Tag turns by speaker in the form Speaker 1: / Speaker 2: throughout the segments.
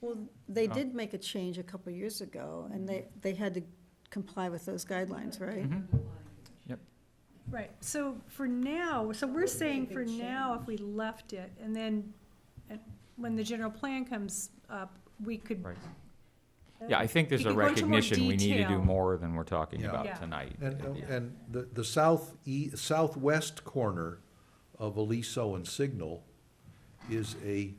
Speaker 1: Well, they
Speaker 2: Oh.
Speaker 1: did make a change a couple of years ago, and they, they had to comply with those guidelines,
Speaker 2: Mm-hmm.
Speaker 1: right?
Speaker 3: Mm-hmm.
Speaker 4: Right, so for now, so we're saying for now, if we left it, and then, and when the general plan comes up, we could.
Speaker 2: Right. Yeah, I think there's
Speaker 4: You
Speaker 2: a
Speaker 4: could go into more
Speaker 2: recognition we need to do
Speaker 4: detail.
Speaker 2: more than we're talking
Speaker 3: Yeah.
Speaker 2: about
Speaker 4: Yeah.
Speaker 2: tonight.
Speaker 3: And,
Speaker 2: Yeah.
Speaker 3: and the, the south e, southwest corner of Aliso and Signal is a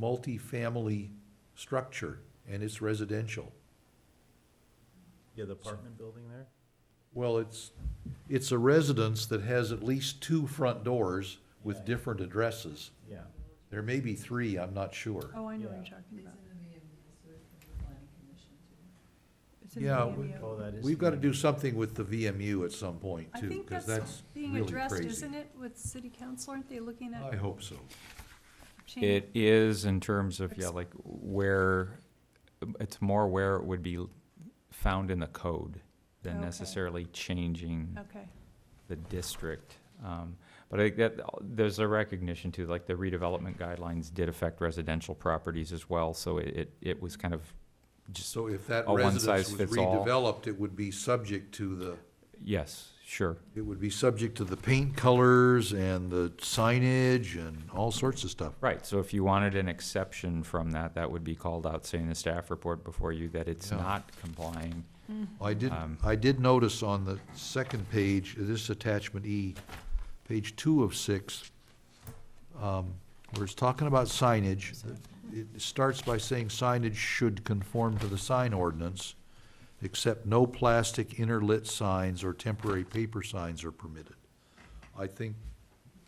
Speaker 3: multifamily structure, and it's residential.
Speaker 5: Yeah, the apartment building there?
Speaker 3: Well, it's, it's a residence that has at least two front doors with different addresses.
Speaker 5: Yeah.
Speaker 3: There may be three, I'm not sure.
Speaker 4: Oh, I know what you're
Speaker 5: Yeah.
Speaker 4: talking about. It's in the E
Speaker 3: Yeah,
Speaker 4: VMU.
Speaker 3: we-
Speaker 5: Oh, that is.
Speaker 3: We've got to do something with the VMU at some point,
Speaker 4: I
Speaker 3: too,
Speaker 4: think
Speaker 3: because
Speaker 4: that's
Speaker 3: that's
Speaker 4: being
Speaker 3: really
Speaker 4: addressed,
Speaker 3: crazy.
Speaker 4: isn't it, with city council, aren't they looking
Speaker 3: I
Speaker 4: at
Speaker 3: hope so.
Speaker 4: changing?
Speaker 2: It is in terms of, yeah,
Speaker 4: Ex-
Speaker 2: like where, it's more where it would be found in the code than
Speaker 4: Okay.
Speaker 2: necessarily changing
Speaker 4: Okay,
Speaker 2: the district. Um, But I think that, there's a recognition too, like the redevelopment guidelines did affect residential properties as well, so it, it- it was kind of just,
Speaker 3: So if that
Speaker 2: A
Speaker 3: residence was
Speaker 2: one-size-fits-all.
Speaker 3: redeveloped, it would be subject to the,
Speaker 2: yes, sure.
Speaker 3: it would be subject to the paint colors and the signage and all sorts of stuff.
Speaker 2: Right, so if you wanted an exception from that, that would be called out, say in the staff report before you, that it's
Speaker 3: Yeah.
Speaker 2: not complying.
Speaker 3: I did,
Speaker 2: Um,
Speaker 3: I did notice on the second page, this attachment E, page two of six, um, where it's talking about signage, it starts by saying signage should conform to the sign ordinance, except no plastic interlit signs or temporary paper signs are permitted. I think,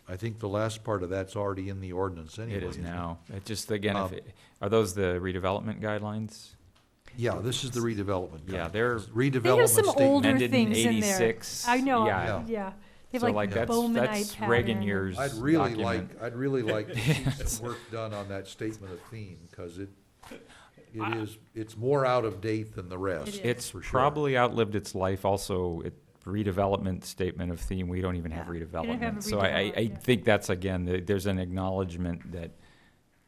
Speaker 3: I think the last part of that's already in the ordinance anyway.
Speaker 2: It is
Speaker 3: isn't
Speaker 2: now. It just, again, if
Speaker 3: Um,
Speaker 2: it- are those the redevelopment guidelines?
Speaker 3: Yeah, this is the redevelopment.
Speaker 2: Yeah,
Speaker 3: guidelines.
Speaker 2: they're
Speaker 4: They
Speaker 3: Redevelopment
Speaker 4: have some
Speaker 3: statement.
Speaker 4: older
Speaker 2: amended in
Speaker 4: things in there.
Speaker 2: eighty-six.
Speaker 4: I know,
Speaker 2: Yeah,
Speaker 4: yeah. They have
Speaker 2: so like,
Speaker 4: like the
Speaker 2: that's,
Speaker 4: Bowmanite
Speaker 2: that's Reagan
Speaker 4: pattern.
Speaker 2: years
Speaker 3: I'd really
Speaker 2: document.
Speaker 3: like, I'd really like to see some work done on that statement of theme, because it, it is, it's more out of date than the rest.
Speaker 4: It
Speaker 2: It's
Speaker 3: for sure.
Speaker 2: probably outlived its life also, it, redevelopment statement of theme, we don't even have
Speaker 1: Yeah, we
Speaker 4: don't have a
Speaker 2: redevelopment. So I, I, I
Speaker 4: redevelop, yeah.
Speaker 2: think that's again, the- there's an acknowledgement that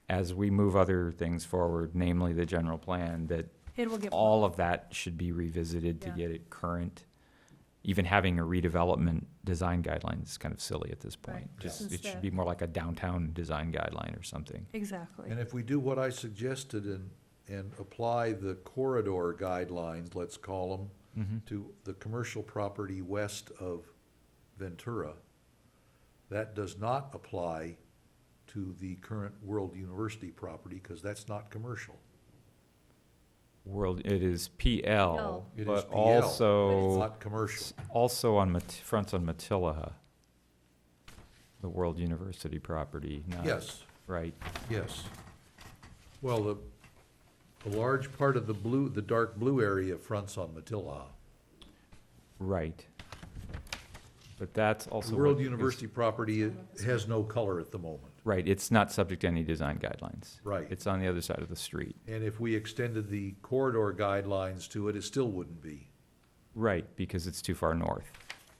Speaker 2: as we move other things forward, namely the general plan, that
Speaker 4: It will get.
Speaker 2: all of that should be revisited to
Speaker 4: Yeah.
Speaker 2: get it current. Even having a redevelopment design guideline is kind of silly at this
Speaker 4: Right.
Speaker 2: point. Just, it
Speaker 4: Instead-
Speaker 2: should be more like a downtown design guideline or something.
Speaker 4: Exactly.
Speaker 3: And if we do what I suggested and, and apply the corridor guidelines, let's call them, to the commercial property west of Ventura, that does not apply to the current World University property, because that's not commercial.
Speaker 2: World, it is PL,
Speaker 3: It is
Speaker 2: but
Speaker 3: PL, It's
Speaker 2: also,
Speaker 3: not commercial.
Speaker 2: also on, Mat- fronts on Matilla, the World University property, not,
Speaker 3: Yes.
Speaker 2: right?
Speaker 3: Yes. Well, the, the large part of the blue, the dark blue area fronts on Matilla.
Speaker 2: Right. But that's also.
Speaker 3: The World
Speaker 2: what is-
Speaker 3: University property i- has no color at the moment.
Speaker 2: Right, it's not subject to any design guidelines.
Speaker 3: Right.
Speaker 2: It's on the other side of the street.
Speaker 3: And if we extended the corridor guidelines to it, it still wouldn't be.
Speaker 2: Right, because it's too far north.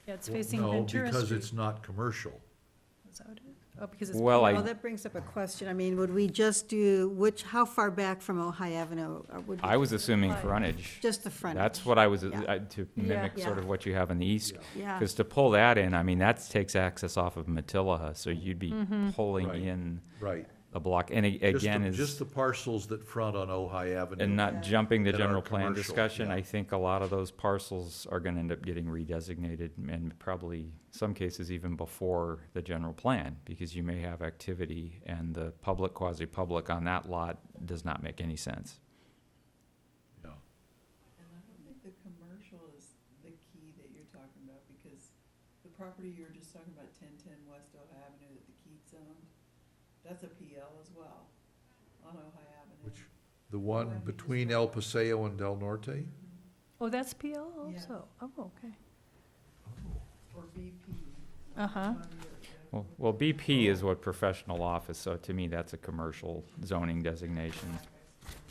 Speaker 4: Yeah, it's facing
Speaker 3: No,
Speaker 4: Ventura
Speaker 3: Because
Speaker 4: Street.
Speaker 3: it's not commercial.
Speaker 4: Is that what it is? Oh, because it's.
Speaker 2: Well,
Speaker 1: Well,
Speaker 2: I,
Speaker 1: that brings up a question. I mean, would we just do, which, how far back from Ojai Avenue uh, would? we-
Speaker 2: I was assuming frontage.
Speaker 1: Just the front.
Speaker 2: That's what I was,
Speaker 1: Yeah.
Speaker 2: I- to
Speaker 4: Yeah.
Speaker 2: mimic sort of what you have in the east.
Speaker 1: Yeah.
Speaker 2: Because to pull that in, I mean, that takes access off of Matilla, so you'd be
Speaker 4: Mm-hmm.
Speaker 2: pulling
Speaker 3: Right.
Speaker 2: in
Speaker 3: Right.
Speaker 2: a block. And a-
Speaker 3: Just the-
Speaker 2: again,
Speaker 3: Just
Speaker 2: is,
Speaker 3: the parcels that front on Ojai Avenue.
Speaker 2: and not jumping the
Speaker 3: that are
Speaker 2: general plan
Speaker 3: commercial,
Speaker 2: discussion,
Speaker 3: yeah.
Speaker 2: I think a lot of those parcels are gonna end up getting redesignated and probably some cases even before the general plan, because you may have activity and the public, quasi-public on that lot does not make any sense.
Speaker 3: Yeah.
Speaker 6: And I don't think the commercial is the key that you're talking about, because the property you were just talking about, ten ten West Ojai Avenue that the Keats owned, that's a PL as well, on Ojai Avenue.
Speaker 3: Which- The one between El Paseo and Del Norte?
Speaker 4: Oh, that's PL
Speaker 6: Yeah.
Speaker 4: also. Oh, okay.
Speaker 6: Or BP.
Speaker 4: Uh-huh.
Speaker 2: Well, well, BP is what professional office, so to me, that's a commercial zoning designation.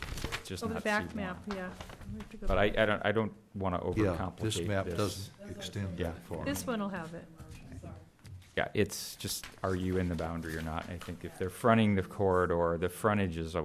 Speaker 2: It's Just
Speaker 4: Oh, the
Speaker 2: not
Speaker 4: back
Speaker 2: C1.
Speaker 4: map, yeah. We have to go
Speaker 2: But I,
Speaker 4: back.
Speaker 2: I don't, I don't want to
Speaker 3: Yeah,
Speaker 2: overcomplicate this.
Speaker 3: this map doesn't extend
Speaker 2: Yeah.
Speaker 3: that far.
Speaker 4: This one will have it.
Speaker 2: Yeah, it's just, are you in the boundary or not? I think if they're fronting the corridor, the frontage is